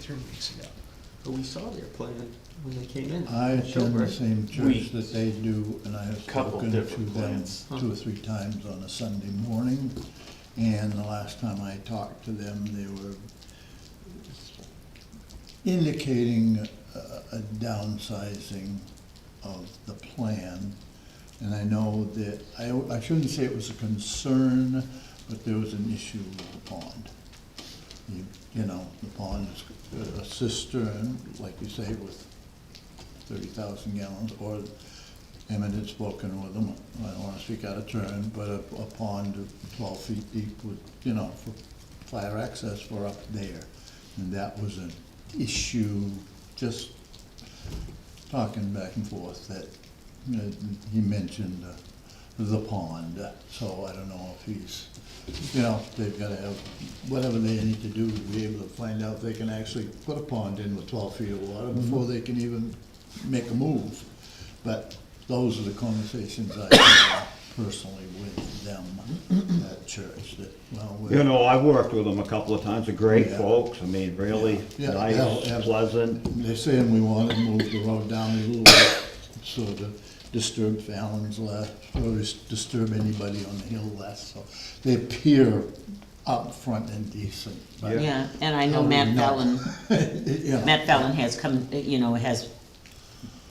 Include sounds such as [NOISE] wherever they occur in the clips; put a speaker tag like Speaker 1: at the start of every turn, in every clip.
Speaker 1: three weeks ago.
Speaker 2: But we saw their plan when they came in.
Speaker 3: I attend the
Speaker 2: Correct.
Speaker 3: same
Speaker 4: We-
Speaker 3: church that they do, and I have
Speaker 4: Couple
Speaker 3: spoken to
Speaker 4: different
Speaker 3: them
Speaker 4: plans.
Speaker 3: two or three times on a Sunday morning. And the last time I talked to them, they were indicating a a downsizing of the plan. And I know that, I, I shouldn't say it was a concern, but there was an issue with the pond. You- You know, the pond is a cistern, like you say, with thirty thousand gallons, or Emmett had spoken with them, I don't wanna speak out of turn, but a, a pond of twelve feet deep would, you know, for fire access were up there. And that was an issue, just talking back and forth, that, you know, he mentioned uh, the pond, so I don't know if he's, you know, they've gotta have, whatever they need to do to be able to find out if they can actually put a pond in with twelve feet of water before they can even make a move. But those are the conversations I had personally with them at church, that, well, we're.
Speaker 5: You know, I've worked with them a couple of times, they're great
Speaker 3: Yeah.
Speaker 5: folks, I mean, really
Speaker 3: Yeah, yeah, yeah.
Speaker 5: nice, pleasant.
Speaker 3: They're saying we want to move the road down a little bit, so to disturb Fallon's left, or dis- disturb anybody on the hill less, so they appear upfront and decent. but-
Speaker 6: Yeah, and I know Matt
Speaker 3: Oh, No.
Speaker 6: Fallon,
Speaker 3: Yeah.
Speaker 6: Matt Fallon has come, you know, has,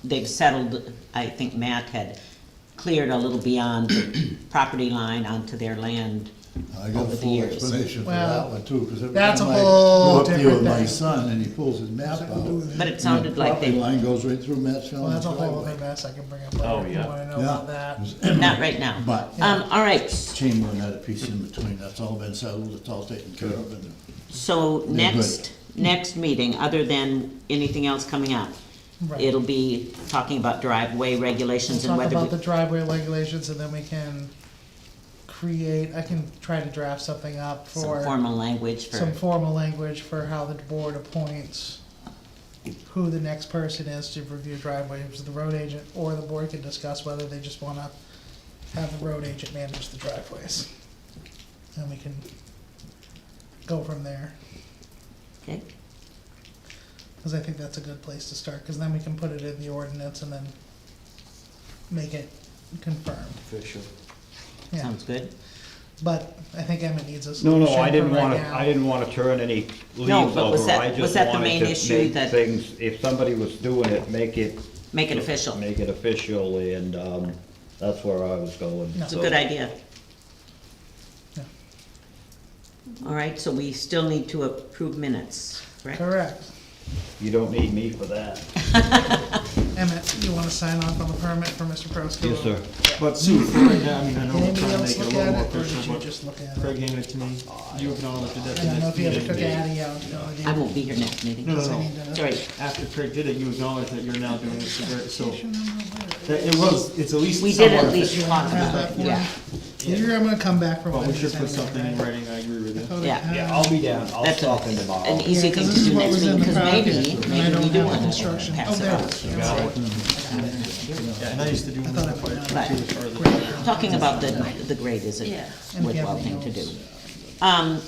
Speaker 6: they've settled, I think Matt had cleared a little beyond the [COUGHS] property line onto their land.
Speaker 3: I got
Speaker 6: over
Speaker 3: a
Speaker 6: the
Speaker 3: full
Speaker 6: years.
Speaker 3: explanation for
Speaker 1: Well,
Speaker 3: that one too, because every
Speaker 1: that's a
Speaker 3: time I
Speaker 1: whole
Speaker 3: go up here with
Speaker 1: different
Speaker 3: my
Speaker 1: thing.
Speaker 3: son and he pulls his map out.
Speaker 6: But it sounded like
Speaker 3: The property
Speaker 6: they,
Speaker 3: line goes right through Matt
Speaker 1: Well,
Speaker 3: Fallon's
Speaker 1: that's a whole
Speaker 3: driveway.
Speaker 1: other mess I can bring up later
Speaker 4: Oh,
Speaker 1: if you
Speaker 4: yeah.
Speaker 1: wanna know
Speaker 3: Yeah.
Speaker 1: about that.
Speaker 6: not right now.
Speaker 3: [CLEARS THROAT] But-
Speaker 6: Um, all right,
Speaker 3: Chamberlain had a piece in between, that's all been settled, it's all taken care of, and
Speaker 6: so
Speaker 3: good.
Speaker 6: next, next meeting, other than anything else coming up,
Speaker 1: Right.
Speaker 6: it'll be talking about driveway
Speaker 1: Let's
Speaker 6: regulations and
Speaker 1: talk
Speaker 6: whether
Speaker 1: about the
Speaker 6: we,
Speaker 1: driveway regulations and then we can create, I can try to draft something up
Speaker 6: some
Speaker 1: for,
Speaker 6: formal language
Speaker 1: some
Speaker 6: for,
Speaker 1: formal language for how the board appoints who the next person is to review driveways, the road agent, or the board can discuss whether they just wanna have the road agent manage the driveways. And we can go from there.
Speaker 6: okay?
Speaker 1: Because I think that's a good place to start, because then we can put it in the ordinance and then make it confirmed,
Speaker 2: Official.
Speaker 1: yeah.
Speaker 6: Sounds good.
Speaker 1: But I think Emmett needs us.
Speaker 5: No, no, I didn't wanna, I didn't wanna turn any leaves
Speaker 6: but was
Speaker 5: over,
Speaker 6: that-
Speaker 5: I
Speaker 6: was
Speaker 5: just
Speaker 6: that the
Speaker 5: wanted
Speaker 6: main
Speaker 5: to
Speaker 6: issue
Speaker 5: make
Speaker 6: that-
Speaker 5: things, if somebody was doing it, make it.
Speaker 6: Make it official.
Speaker 5: Make it official, and, um, that's where I was going.
Speaker 1: No.
Speaker 6: It's a
Speaker 5: so.
Speaker 6: good idea.
Speaker 1: Yeah.
Speaker 6: All right, so we still need to approve minutes, correct?
Speaker 1: Correct.
Speaker 5: You don't need me for that.
Speaker 1: Emmett, you wanna sign off on the permit for Mr. Prosky?
Speaker 5: Yes, sir.
Speaker 2: But Sue, for right now, I mean, I know
Speaker 1: Did
Speaker 2: we're
Speaker 1: anybody
Speaker 2: trying to
Speaker 1: else
Speaker 2: make it a
Speaker 1: look
Speaker 2: little more
Speaker 1: at it, or did
Speaker 2: official,
Speaker 1: you
Speaker 2: but
Speaker 1: just look at
Speaker 2: Craig
Speaker 1: it?
Speaker 2: gave it to me. You acknowledged it at
Speaker 1: I
Speaker 2: the
Speaker 1: don't know
Speaker 2: next
Speaker 1: if you had to
Speaker 2: meeting.
Speaker 1: cook Addie out, no idea.
Speaker 6: I won't be here next meeting.
Speaker 2: No, no,
Speaker 1: Because I
Speaker 2: no.
Speaker 1: need to know.
Speaker 6: It's all right.
Speaker 2: After Craig did it, you acknowledged that you're now doing it, so we're- so, that it was, it's at least
Speaker 6: We did
Speaker 2: somewhat
Speaker 6: at least
Speaker 2: official.
Speaker 6: talk about it,
Speaker 1: Yeah.
Speaker 6: yeah.
Speaker 1: You're, I'm gonna come back for
Speaker 2: But
Speaker 1: one.
Speaker 2: we should put something in writing, I agree with you.
Speaker 6: Yeah.
Speaker 5: Yeah, I'll be down, I'll
Speaker 6: That's a-
Speaker 5: stop in tomorrow.
Speaker 6: An easy thing to do next meeting, because maybe, maybe we do want to
Speaker 1: Oh,
Speaker 6: pass it off.
Speaker 2: Yeah, and I used to do them
Speaker 1: thought I
Speaker 2: before,
Speaker 1: put it
Speaker 6: Right.
Speaker 2: before the-
Speaker 6: Talking about the, the grade is a
Speaker 1: And
Speaker 6: worthwhile
Speaker 1: Gavin
Speaker 6: thing to do.
Speaker 1: knows.
Speaker 6: Um,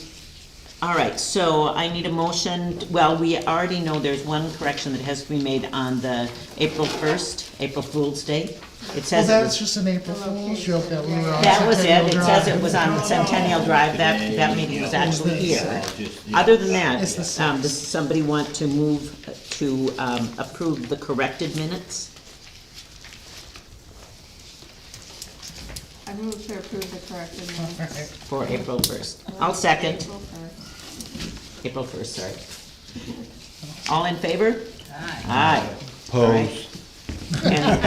Speaker 6: all right, so I need a motion, well, we already know there's one correction that has to be made on the April first, April Fool's Day. It
Speaker 1: Well,
Speaker 6: says it
Speaker 1: that's
Speaker 6: was,
Speaker 1: just an April Fool's joke that we were on.
Speaker 6: that was it,
Speaker 1: Centennial
Speaker 6: it
Speaker 1: Drive.
Speaker 6: says it was on Centennial Drive, that, that meeting was actually here. Other than
Speaker 1: It's the
Speaker 6: that,
Speaker 1: same.
Speaker 6: um, does somebody want to move to, um, approve the corrected minutes?
Speaker 7: I move to approve the corrected minutes.
Speaker 6: For April first. I'll second,
Speaker 7: April first.
Speaker 6: April first, sorry. All in favor? Aye. Aye.
Speaker 5: Pose.
Speaker 6: And-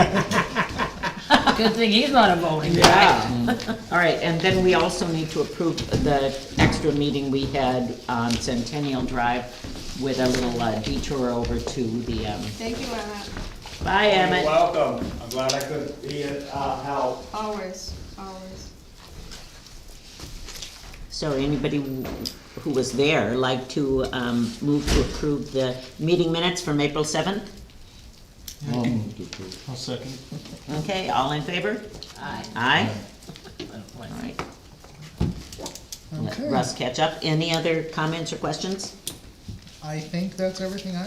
Speaker 8: Good thing he's not a voting.
Speaker 6: Yeah. All right, and then we also need to approve the extra meeting we had on Centennial Drive with a little uh, detour over to the, um,
Speaker 7: Thank you, Emmett,
Speaker 6: bye Emmett.
Speaker 4: Welcome, I'm glad I could be of uh, help.
Speaker 7: always, always.
Speaker 6: So anybody who was there like to um, move to approve the meeting minutes from April 7th?
Speaker 3: I'll move to approve.
Speaker 2: I'll second.
Speaker 6: Okay, all in favor?
Speaker 8: Aye.
Speaker 6: Aye? All right. Let
Speaker 1: Okay.
Speaker 6: Russ catch up. Any other comments or questions?
Speaker 1: I think that's everything I